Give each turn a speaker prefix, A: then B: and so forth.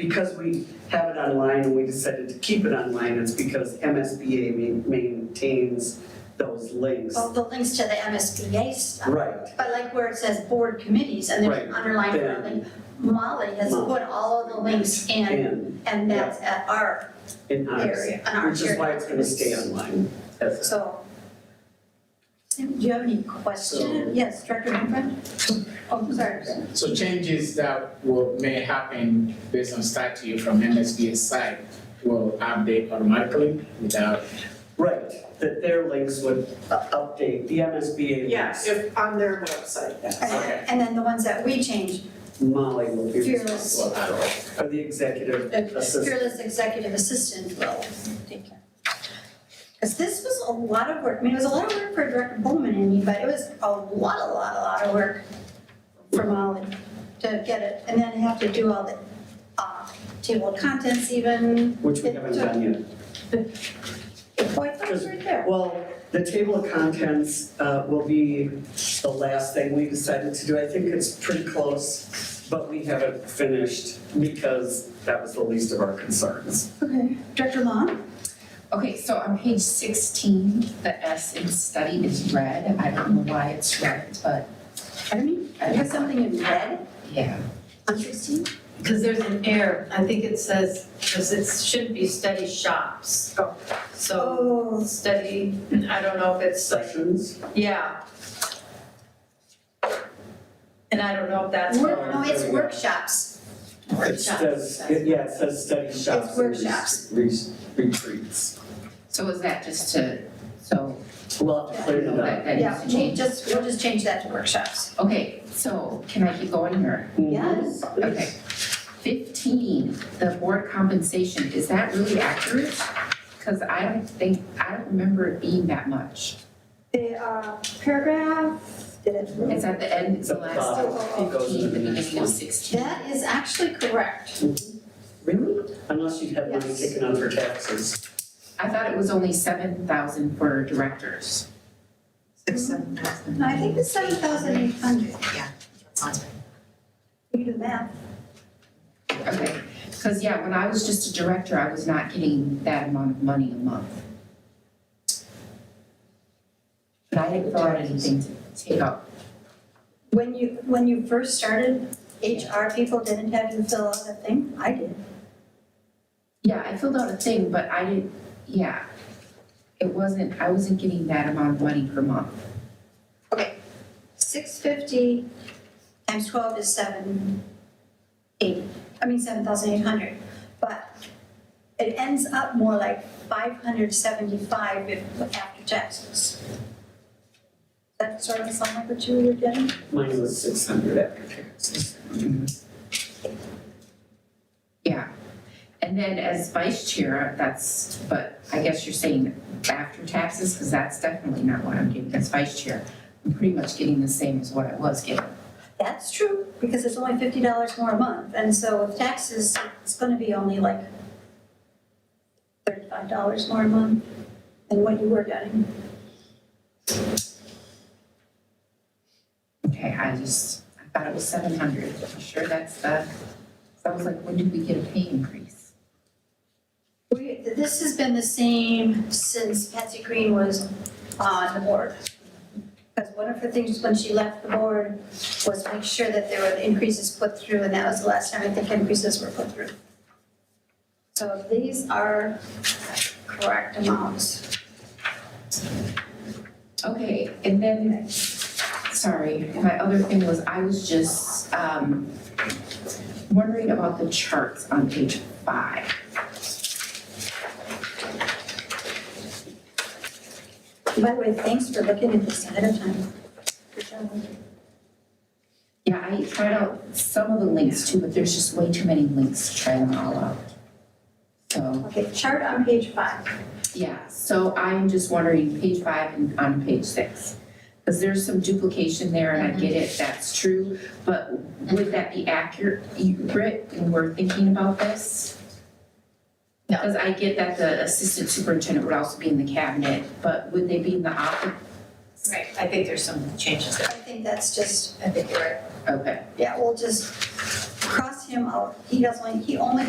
A: because we have it online and we decided to keep it online, it's because MSBA ma- maintains those links.
B: Well, the links to the MSBA stuff.
A: Right,
B: But like where it says board committees and there's an
A: Right,
B: underlined
A: then-
B: building, Molly has
A: Molly.
B: put all of the links in
A: and
B: and that's at our
A: in ours,
B: area, on our
A: which is
B: shared
A: why it's gonna stay
B: documents.
A: online. That's-
B: So. Do you have any
A: So-
B: question? Yes, Director Humphrey? Oh, I'm sorry.
C: So changes that will, may happen based on statute from MSB's side will update automatically without.
A: Right, that their links would u- update, the MSBA
D: Yeah,
A: links,
D: if on their website.
B: And then- And then the ones that we change,
A: Molly will be
B: fearless,
A: responsible, or the executive assistant.
B: fearless executive assistant will take care. Because this was a lot of work, I mean, it was a lot of work for Director Bowman and me, but it was a lot, a lot, a lot of work for Molly to get it, and then have to do all the, uh, table of contents even,
A: Which we haven't done yet.
B: the point that was right there.
A: Well, the table of contents uh, will be the last thing we decided to do. I think it's pretty close, but we haven't finished because that was the least of our concerns.
B: Okay, Director Long?
E: Okay, so on page sixteen, the S in study is red. I don't know why it's red, but
B: Pardon me? You have something in red
E: yeah.
B: on sixteen?
F: Because there's an error, I think it says, because it should be study shops.
B: Oh.
F: So,
B: Oh,
F: study, I don't know if it's,
A: Sessions?
F: yeah. And I don't know if that's.
B: work, no, it's workshops.
A: It says, it- yeah, it says study shops. and re-
B: workshops.
A: re- Retreats.
E: So is that just to, so,
A: We'll have to clear
E: you know,
A: it up.
E: that, that
B: Yeah,
E: needs to
B: we
E: change?
B: just, we'll just change that to workshops.
E: Okay, so can I keep going here?
A: Mm-hmm.
B: Yes.
E: Okay. Fifteen, the board compensation, is that really accurate? Cause I don't think, I don't remember it being that much.
B: The uh, paragraph, did it?
E: It's at the end, it's the
A: It's at the
E: last
A: bottom. It goes to
E: fifteen,
A: the
E: the
A: next
E: beginning
A: one.
E: of sixteen.
B: That is actually correct.
A: Really? Unless you have money
B: Yes.
A: taken out for taxes.
E: I thought it was only seven thousand for directors.
G: Six, seven thousand.
B: No, I think it's seven thousand eight hundred.
G: Yeah. Sounds
B: You do the math.
E: Okay, because yeah, when I was just a director, I was not getting that amount of money a month. But I didn't fill out anything to take up.
B: When you, when you first started, HR people didn't have you fill out a thing? I did.
E: Yeah, I filled out a thing, but I didn't, yeah. It wasn't, I wasn't getting that amount of money per month.
B: Six fifty times twelve is seven eighty, I mean, seven thousand eight hundred. But it ends up more like five hundred seventy-five if, after taxes. That sort of sound like what you were getting?
A: Mine was six hundred after taxes.
E: Yeah. And then as vice chair, that's, but I guess you're saying after taxes, because that's definitely not what I'm getting as vice chair. I'm pretty much getting the same as what I was getting.
B: That's true, because it's only fifty dollars more a month, and so with taxes, it's gonna be only like thirty-five dollars more a month than what you were getting.
E: Okay, I just, I thought it was seven hundred, I'm sure that's the, so I was like, when did we get a pay increase?
B: We, this has been the same since Patsy Green was on the board. Because one of her things when she left the board was make sure that there were increases put through, and that was the last time I think increases were put through. So these are correct amounts.
E: Okay, and then, sorry, my other thing was, I was just, um, wondering about the charts on page five.
B: By the way, thanks for looking at this ahead of time. Good job.
E: Yeah, I tried out some of the links too, but there's just way too many links to try them all out. So,
B: Okay, chart on page five.
E: yeah, so I'm just wondering, page five and on page six. Because there's some duplication there and I get it, that's true, but would that be accurate, accurate when we're thinking about this?
F: No.
E: Because I get that the assistant superintendent would also be in the cabinet, but would they be in the office?
F: Right, I think there's some changes
B: I
F: there,
B: think that's just,
F: I think you're right.
E: Okay.
B: yeah, we'll just cross him out. He doesn't, he only